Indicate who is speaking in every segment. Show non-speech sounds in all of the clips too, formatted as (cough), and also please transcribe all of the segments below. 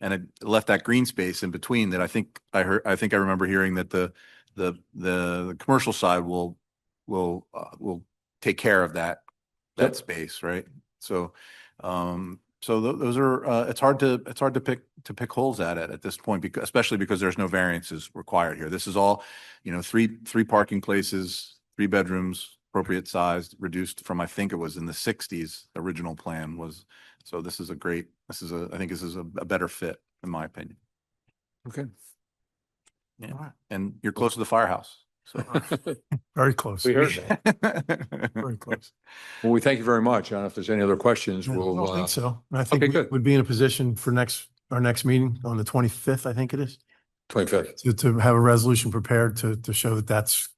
Speaker 1: and it left that green space in between that I think I heard, I think I remember hearing that the, the, the, the commercial side will, will, uh, will take care of that,
Speaker 2: Yep.
Speaker 1: that space, right? So, um, so tho- those are, uh, it's hard to, it's hard to pick, to pick holes at it at this point, because, especially because there's no variances required here. This is all, you know, three, three parking places, three bedrooms, appropriate size, reduced from, I think it was in the sixties, original plan was. So this is a great, this is a, I think this is a, a better fit, in my opinion.
Speaker 2: Okay.
Speaker 1: Yeah. And you're close to the firehouse,
Speaker 2: (laughs)
Speaker 1: so.
Speaker 3: Very close.
Speaker 2: We heard
Speaker 1: (laughs)
Speaker 2: that.
Speaker 1: Very
Speaker 3: close.
Speaker 2: (laughs) Well, we thank you very much. I don't know if there's any other questions. (laughs)
Speaker 3: I
Speaker 2: We'll,
Speaker 3: don't
Speaker 2: uh,
Speaker 3: think so. And I
Speaker 2: okay,
Speaker 3: think we
Speaker 2: good.
Speaker 3: would be in a position for next, our next meeting on the twenty-fifth, I think it is,
Speaker 2: twenty-fifth.
Speaker 3: to, to have a resolution prepared to, to show that that's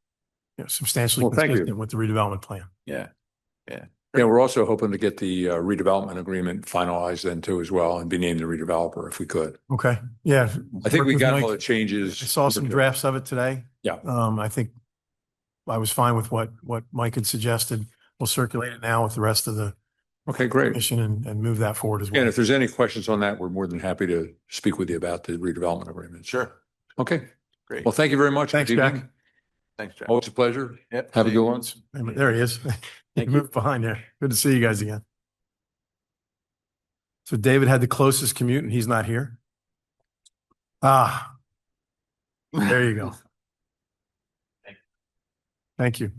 Speaker 3: you know, substantially
Speaker 2: Well, thank you.
Speaker 3: consistent with the redevelopment plan.
Speaker 1: Yeah,
Speaker 2: Yeah, we're also hoping to get the uh, redevelopment agreement finalized then too as well and be named the redeveloper if we could.
Speaker 3: Okay, yeah.
Speaker 2: I think
Speaker 3: work
Speaker 2: we
Speaker 3: with
Speaker 2: got
Speaker 3: Mike.
Speaker 2: all the changes.
Speaker 3: I saw some drafts of it today.
Speaker 2: Yeah.
Speaker 3: Um, I think I was fine with what, what Mike had suggested. We'll circulate it now with the rest of the
Speaker 2: Okay, great.
Speaker 3: commission and, and move that forward as well.
Speaker 2: And if there's any questions on that, we're more than happy to speak with you about the redevelopment agreement.
Speaker 1: sure.
Speaker 2: Okay.
Speaker 1: Great.
Speaker 2: Well, thank you very much.
Speaker 3: Thanks,
Speaker 2: Good evening.
Speaker 3: Jack.
Speaker 1: Thanks, Jack.
Speaker 2: Always a pleasure.
Speaker 1: Yep,
Speaker 2: Have a
Speaker 1: see you.
Speaker 2: good one.
Speaker 3: Wait a minute, There he is. (laughs) He moved behind there. Good to see you guys again. So David had the closest commute and he's not here. Ah, there you go. Thank you.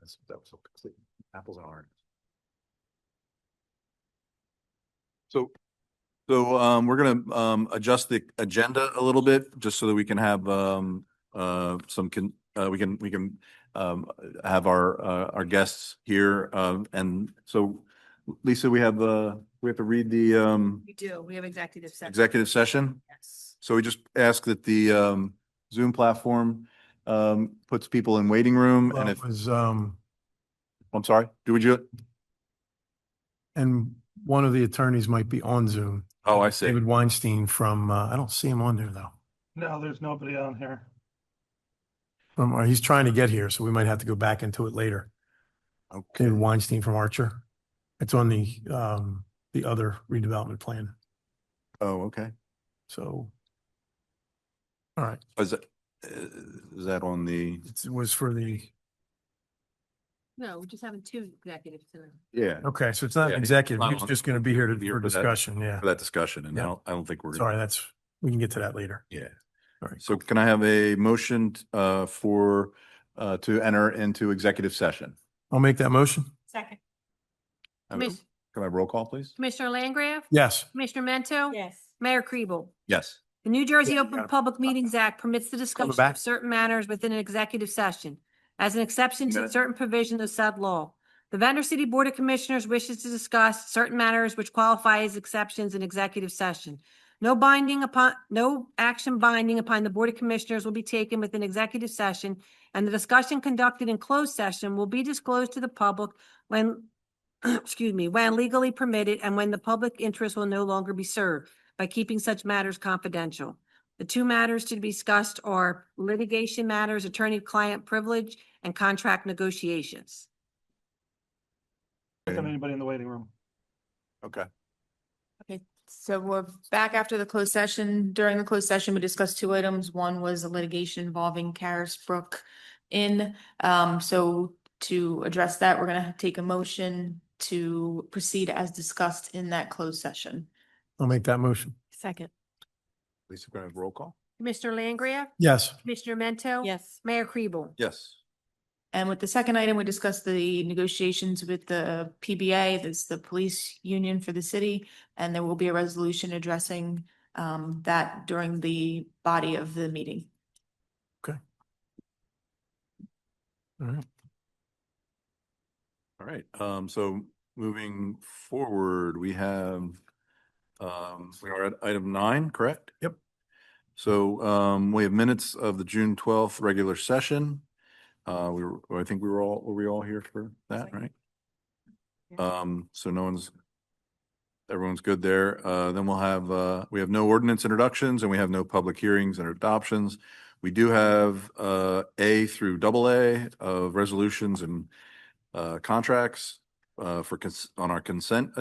Speaker 1: That's- That was so complete. Apples and oranges. So, so, um, we're gonna, um, adjust the agenda a little bit, just so that we can have, um, uh, some can, uh, we can, we can, um, have our, uh, our guests here, um, and so, Lisa, we have, uh, we have to read the, um,
Speaker 4: We do. We have executive session.
Speaker 1: executive session?
Speaker 4: Yes.
Speaker 1: So we just ask that the, um, Zoom platform, um, puts people in waiting room,
Speaker 3: Well,
Speaker 1: and
Speaker 3: It
Speaker 1: if,
Speaker 3: was, um,
Speaker 1: I'm sorry, do we do it?
Speaker 3: and one of the attorneys might be on Zoom.
Speaker 1: Oh, I see.
Speaker 3: David Weinstein from, uh, I don't see him on there though.
Speaker 5: No, there's nobody on here.
Speaker 3: From, or he's trying to get here, so we might have to go back into it later.
Speaker 1: Okay,
Speaker 3: David Weinstein from Archer. It's on the, um, the other redevelopment plan.
Speaker 1: oh, okay.
Speaker 3: So. All right,
Speaker 1: Is that, is that on the?
Speaker 3: it's- it was for the,
Speaker 4: No, we're just having two executives tonight.
Speaker 1: Yeah.
Speaker 3: okay, so it's not
Speaker 1: Yeah,
Speaker 3: an
Speaker 1: it's
Speaker 3: executive,
Speaker 1: not
Speaker 3: it's
Speaker 1: on-
Speaker 3: just gonna be here to-
Speaker 1: here
Speaker 3: for
Speaker 1: for that.
Speaker 3: discussion, yeah.
Speaker 1: For that discussion, and I
Speaker 3: Yeah.
Speaker 1: don't, I don't think we're.
Speaker 3: Sorry, that's, we can get to that later.
Speaker 1: Yeah.
Speaker 3: All right.
Speaker 1: So can I have a motion, uh, for, uh, to enter into executive session?
Speaker 3: I'll make that motion.
Speaker 4: Second.
Speaker 1: Can I roll call, please?
Speaker 4: Commissioner Langgraf?
Speaker 3: Yes.
Speaker 4: Commissioner Mento?
Speaker 6: Yes.
Speaker 4: Mayor Kribel?
Speaker 1: Yes.
Speaker 4: The New Jersey
Speaker 3: Yeah, you
Speaker 4: Open
Speaker 3: gotta-
Speaker 4: Public Meetings Act permits the discussion
Speaker 3: back.
Speaker 4: of certain matters within an executive session as an exception to
Speaker 1: Minute.
Speaker 4: certain provisions of said law. The Venter City Board of Commissioners wishes to discuss certain matters which qualify as exceptions in executive session. No binding upon, no action binding upon the Board of Commissioners will be taken within executive session, and the discussion conducted in closed session will be disclosed to the public when, (clears throat) excuse me, when legally permitted and when the public interest will no longer be served by keeping such matters confidential. The two matters to be discussed are litigation matters, attorney-client privilege, and contract negotiations.
Speaker 5: Look at
Speaker 1: Okay.
Speaker 5: anybody in the waiting room.
Speaker 1: Okay.
Speaker 6: Okay, so we're back after the closed session. During the closed session, we discussed two items. One was a litigation involving Carisbrook Inn. Um, so to address that, we're gonna take a motion to proceed as discussed in that closed session.
Speaker 3: I'll make that motion.
Speaker 6: Second.
Speaker 1: Lisa, can I have roll call?
Speaker 4: Commissioner Langria?
Speaker 3: Yes.
Speaker 4: Commissioner Mento?
Speaker 6: Yes.
Speaker 4: Mayor Kribel?
Speaker 1: Yes.
Speaker 6: And with the second item, we discussed the negotiations with the PBA, that's the police union for the city. And there will be a resolution addressing um that during the body of the meeting.
Speaker 3: All right.
Speaker 1: All right, um, so moving forward, we have, um, we are at item nine, correct?
Speaker 3: Yep.
Speaker 1: So, um, we have minutes of the June twelfth regular session. Uh, we were, I think we were all, were we all here for that, right? Um, so no one's, everyone's good there. Uh, then we'll have, uh, we have no ordinance introductions and we have no public hearings and adoptions. We do have, uh, A through double A of resolutions and, uh, contracts. uh, for, cons- on our consent